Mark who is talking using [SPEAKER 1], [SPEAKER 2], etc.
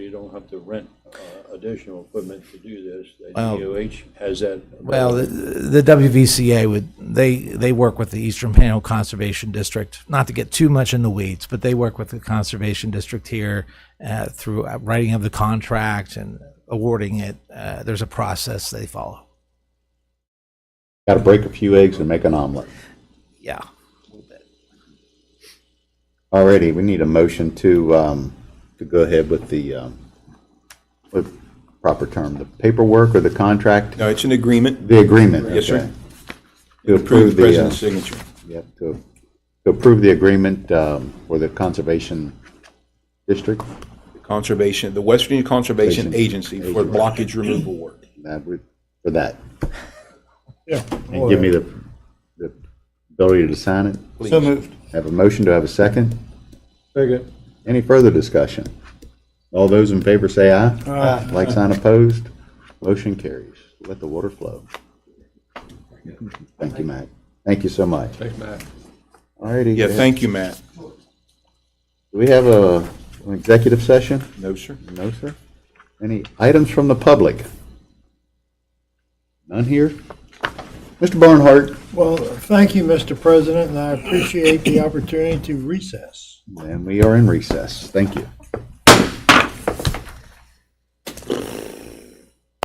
[SPEAKER 1] don't have to rent uh, additional equipment to do this. The
[SPEAKER 2] Well-
[SPEAKER 1] DOH has that.
[SPEAKER 2] Well, the, the WVCA would, they, they work with the Eastern Panhandle Conservation District, not to get too much in the weeds, but they work with the Conservation District here uh, through uh, writing of the contract and awarding it. Uh, There's a process they follow.
[SPEAKER 3] Got to break a few eggs and make an omelet.
[SPEAKER 2] Yeah.
[SPEAKER 3] Alrighty, we need a motion to, um, to go ahead with the, um, with proper term, the paperwork or the contract,
[SPEAKER 4] No, it's an agreement.
[SPEAKER 3] the agreement.
[SPEAKER 4] Yes, sir.
[SPEAKER 3] okay. To
[SPEAKER 4] Approve the
[SPEAKER 3] approve the, uh,
[SPEAKER 4] president's signature.
[SPEAKER 3] yep, to, to approve the agreement, um, for the conservation district.
[SPEAKER 4] Conservation, the West Virginia Conservation Agency for blockage removal work.
[SPEAKER 3] That would, for that.
[SPEAKER 5] Yeah.
[SPEAKER 3] And give me the, the ability to sign it.
[SPEAKER 5] So moved.
[SPEAKER 3] Have a motion, do I have a second?
[SPEAKER 1] Second.
[SPEAKER 3] Any further discussion? All those in favor say aye. Aye. Like sign opposed, motion carries. Let the water flow. Thank you, Matt. Thank you so much. Thanks, Matt. All righty.
[SPEAKER 4] Yeah, thank you, Matt.
[SPEAKER 3] Do we have a, an executive session?
[SPEAKER 4] No, sir.
[SPEAKER 3] No, sir. Any items from the public? None here? Mr. Barnhart?
[SPEAKER 5] Well, thank you, Mr. President, and I appreciate the opportunity to recess.
[SPEAKER 3] And we are in recess. Thank you.